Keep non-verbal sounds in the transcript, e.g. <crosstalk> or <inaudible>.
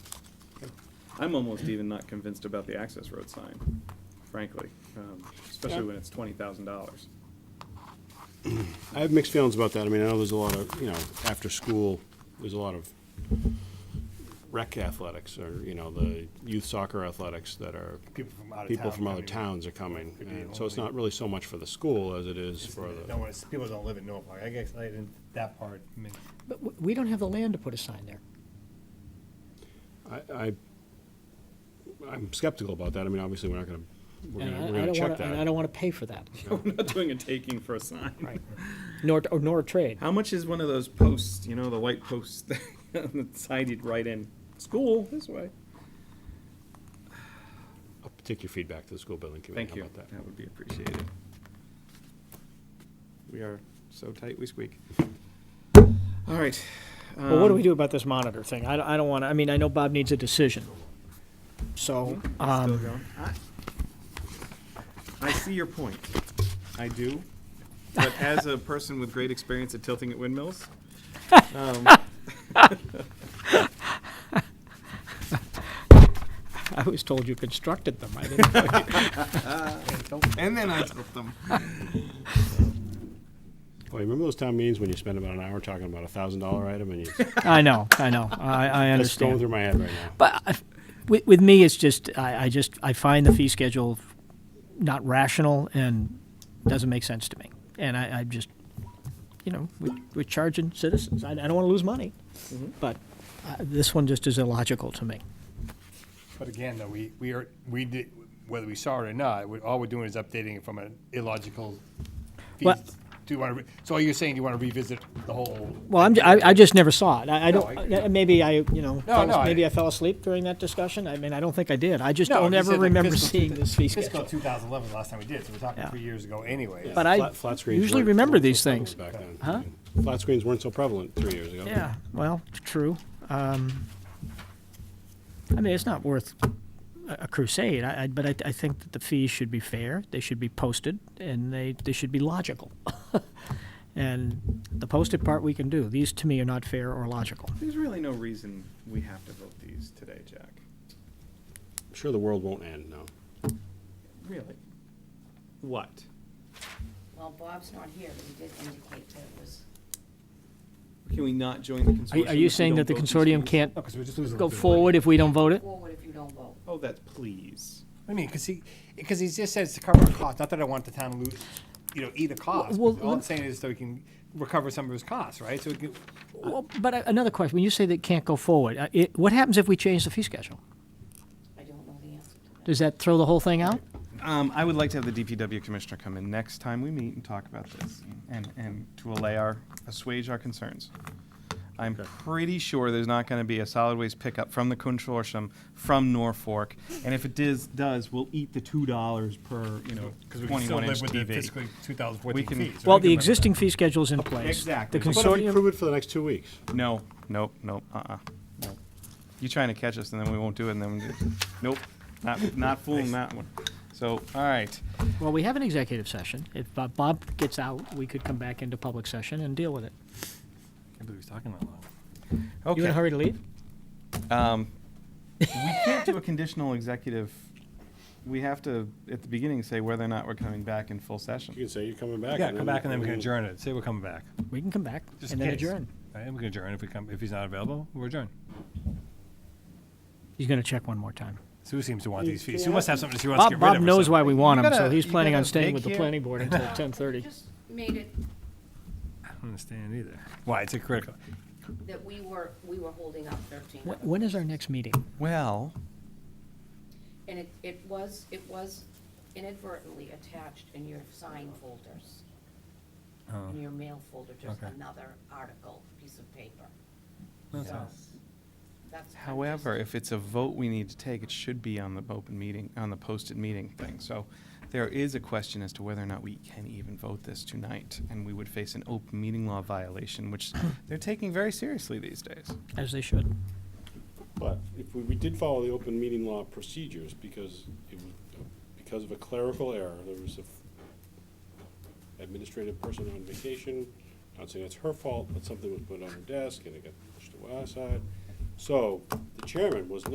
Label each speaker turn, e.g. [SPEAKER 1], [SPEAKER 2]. [SPEAKER 1] I'm almost even not convinced about the access road sign, frankly, um, especially when it's twenty thousand dollars.
[SPEAKER 2] I have mixed feelings about that. I mean, I know there's a lot of, you know, after school, there's a lot of rec athletics or, you know, the youth soccer athletics that are,
[SPEAKER 3] People from out of
[SPEAKER 2] people
[SPEAKER 3] town
[SPEAKER 2] from other
[SPEAKER 3] coming.
[SPEAKER 2] towns are coming.
[SPEAKER 3] Could be
[SPEAKER 2] And
[SPEAKER 3] the
[SPEAKER 2] so it's
[SPEAKER 3] only-
[SPEAKER 2] not really so much for the school as it is
[SPEAKER 3] It's-
[SPEAKER 2] for
[SPEAKER 3] No,
[SPEAKER 2] the,
[SPEAKER 3] it's, people don't live in Norfolk, I guess, I didn't, that part, I mean,
[SPEAKER 4] But w- we don't have the land to put a sign there.
[SPEAKER 2] I, I, I'm skeptical about that. I mean, obviously, we're not gonna, we're
[SPEAKER 4] And I-
[SPEAKER 2] gonna, we're
[SPEAKER 4] I
[SPEAKER 2] gonna
[SPEAKER 4] don't
[SPEAKER 2] check
[SPEAKER 4] wanna- And I
[SPEAKER 2] that.
[SPEAKER 4] don't want to pay for that,
[SPEAKER 1] <laughs> We're not doing a taking for a sign.
[SPEAKER 4] right? Nor, or nor a trade.
[SPEAKER 1] How much is one of those posts, you know, the white posts <laughs> on the side you'd write in, school this way?
[SPEAKER 2] I'll Take your feedback to the school building committee.
[SPEAKER 1] Thank
[SPEAKER 2] How
[SPEAKER 1] you,
[SPEAKER 2] about that?
[SPEAKER 1] that would be appreciated. We are so tight we squeak. All right.
[SPEAKER 4] Well, what
[SPEAKER 1] um,
[SPEAKER 4] do we do about this monitor thing? I, don't- I don't want to, I mean, I know Bob needs a decision. So,
[SPEAKER 1] Still
[SPEAKER 4] um,
[SPEAKER 1] going? I- I see your point. I do. But as a person with great experience at tilting at windmills, um,
[SPEAKER 4] I was told you constructed them. I
[SPEAKER 2] <laughs>
[SPEAKER 4] didn't know.
[SPEAKER 1] and then I tilt them.
[SPEAKER 2] Boy, remember those town meetings when you spend about an hour talking about a thousand dollar item and you,
[SPEAKER 4] <laughs> I know, I know. I, I
[SPEAKER 2] that's going
[SPEAKER 4] understand.
[SPEAKER 2] through my head right now.
[SPEAKER 4] But I- with, with me, it's just, I, I just, I find the fee schedule not rational and doesn't make sense to me. And I, I just, you know, we, we're charging citizens. I, I don't want to lose money.
[SPEAKER 3] Mm-hmm.
[SPEAKER 4] But uh, this one just is illogical to me.
[SPEAKER 3] but again, though, we, we are, we did, whether we saw it or not, we- all we're doing is updating it from an illogical. fee-
[SPEAKER 4] Well-
[SPEAKER 3] Do you wanna, re- so you're saying you wanna revisit the whole?
[SPEAKER 4] Well, I'm, I, I just never saw it. I, I
[SPEAKER 3] No,
[SPEAKER 4] don't,
[SPEAKER 3] I-
[SPEAKER 4] uh, maybe I, you know,
[SPEAKER 3] No,
[SPEAKER 4] fell-
[SPEAKER 3] no, I-
[SPEAKER 4] maybe I fell asleep during that discussion. I mean, I don't think I did. I just
[SPEAKER 3] No,
[SPEAKER 4] don't
[SPEAKER 3] you
[SPEAKER 4] ever
[SPEAKER 3] said that
[SPEAKER 4] remember
[SPEAKER 3] fiscal
[SPEAKER 4] seeing this fee
[SPEAKER 3] Fiscal
[SPEAKER 4] schedule.
[SPEAKER 3] two thousand eleven, last time we did, so we're talking
[SPEAKER 4] Yeah.
[SPEAKER 3] three years ago anyway.
[SPEAKER 4] But I
[SPEAKER 2] Flat- flat screens
[SPEAKER 4] usually
[SPEAKER 2] weren't-
[SPEAKER 4] remember
[SPEAKER 2] weren't so
[SPEAKER 4] these
[SPEAKER 2] prevalent
[SPEAKER 4] things.
[SPEAKER 2] Back then.
[SPEAKER 4] Huh?
[SPEAKER 2] Flat screens weren't so prevalent three years ago.
[SPEAKER 4] Yeah, well, true. Um, I mean, it's not worth a a crusade, I, I, but I, I think that the fees should be fair. They should be posted, and they, they should be logical. <laughs> and the posted part we can do. These to me are not fair or logical.
[SPEAKER 1] There's really no reason we have to vote these today, Jack.
[SPEAKER 2] I'm sure the world won't end, no.
[SPEAKER 1] Really? What?
[SPEAKER 5] Well, Bob's not here, but he did indicate that it was,
[SPEAKER 1] Can we not join the consortium?
[SPEAKER 4] Are, you
[SPEAKER 1] if we
[SPEAKER 4] saying
[SPEAKER 1] don't
[SPEAKER 4] that the
[SPEAKER 1] vote these
[SPEAKER 4] consortium
[SPEAKER 1] fees?
[SPEAKER 4] can't
[SPEAKER 3] No, Oh, 'cause we're just losing a
[SPEAKER 4] go
[SPEAKER 3] little bit of
[SPEAKER 4] forward if we don't vote it?
[SPEAKER 5] forward if you don't vote.
[SPEAKER 1] Oh, that's please.
[SPEAKER 3] money. I mean, cause he, cause he just says to cover our costs, not that I want the town to lose, you know, either cost,
[SPEAKER 4] well,
[SPEAKER 3] but all I'm
[SPEAKER 4] let-
[SPEAKER 3] saying is so we can recover some of his costs, right? So we can,
[SPEAKER 4] Well, but uh, another question, when you say that can't go forward, uh, it, what happens if we change the fee schedule?
[SPEAKER 5] I don't know the answer to that.
[SPEAKER 4] Does that throw the whole thing out?
[SPEAKER 1] Um, I would like to have the DPW commissioner come in next time we meet and talk about this and, and to allay our, assuage our concerns. I'm pretty sure there's not gonna be a solid waste pickup from the consortium from Norfolk. And if it does, does, we'll eat the two dollars per, you know,
[SPEAKER 3] Because we can still
[SPEAKER 1] twenty-one inch
[SPEAKER 3] live with the
[SPEAKER 1] TV.
[SPEAKER 3] fiscal 2014
[SPEAKER 1] We can-
[SPEAKER 3] fees.
[SPEAKER 4] Well,
[SPEAKER 3] right?
[SPEAKER 4] the existing fee schedule is in place.
[SPEAKER 1] Exactly.
[SPEAKER 4] The
[SPEAKER 1] But
[SPEAKER 2] But if you
[SPEAKER 4] consortium,
[SPEAKER 2] prove it for the next two weeks,
[SPEAKER 1] No, nope, nope, uh-uh, nope. You're trying to catch us and then we won't do it and then, we- nope, not, not fooling that one. So, all right.
[SPEAKER 4] well, we have an executive session. If Bob- Bob gets out, we could come back into public session and deal with it.
[SPEAKER 3] can't believe he's talking that long.
[SPEAKER 4] You in a
[SPEAKER 1] Okay,
[SPEAKER 4] hurry to leave?
[SPEAKER 1] we can't do a conditional executive. We have to, at the beginning, say whether or not we're coming back in full session.
[SPEAKER 2] you can say you're coming back.
[SPEAKER 3] Yeah, come back and then we can adjourn it. Say we're coming back.
[SPEAKER 4] We can come back
[SPEAKER 3] Just
[SPEAKER 4] and then
[SPEAKER 3] in case.
[SPEAKER 4] adjourn.
[SPEAKER 3] Right, and we can adjourn if we come, if he's not available, we're adjourned.
[SPEAKER 4] He's gonna check one more time.
[SPEAKER 3] Sue seems to want these fees. Sue must have something she wants to
[SPEAKER 4] Bob,
[SPEAKER 3] get rid
[SPEAKER 4] Bob
[SPEAKER 3] of. or
[SPEAKER 4] knows
[SPEAKER 3] something.
[SPEAKER 4] why we want
[SPEAKER 1] You
[SPEAKER 4] him, so
[SPEAKER 1] gotta-
[SPEAKER 4] he's
[SPEAKER 1] you
[SPEAKER 4] planning on
[SPEAKER 1] gotta
[SPEAKER 4] staying with the
[SPEAKER 1] vacate-
[SPEAKER 4] planning board until
[SPEAKER 5] <laughs>
[SPEAKER 4] ten thirty.
[SPEAKER 5] Just made it
[SPEAKER 3] I don't understand either. Why, it's a critical.
[SPEAKER 5] that we were, we were holding up thirteen. other
[SPEAKER 4] When is our
[SPEAKER 5] things.
[SPEAKER 4] next meeting?
[SPEAKER 1] Well,
[SPEAKER 5] And it, it was, it was inadvertently attached in your sign folders.
[SPEAKER 3] Oh,
[SPEAKER 5] In your mail folder, just
[SPEAKER 3] Okay.
[SPEAKER 5] another article, piece of paper.
[SPEAKER 3] That's
[SPEAKER 5] So,
[SPEAKER 3] all.
[SPEAKER 5] that's. I'm
[SPEAKER 1] however,
[SPEAKER 5] just-
[SPEAKER 1] if it's a vote we need to take, it should be on the open meeting, on the posted meeting thing. So there is a question as to whether or not we can even vote this tonight, and we would face an open meeting law violation, which they're taking very seriously these days.
[SPEAKER 4] As they should.
[SPEAKER 2] But if we, we did follow the open meeting law procedures because it was, because of a clerical error, there was a f- administrative person on vacation. Not saying that's her fault, but something was put on her desk and it got pushed to our side. So the chairman was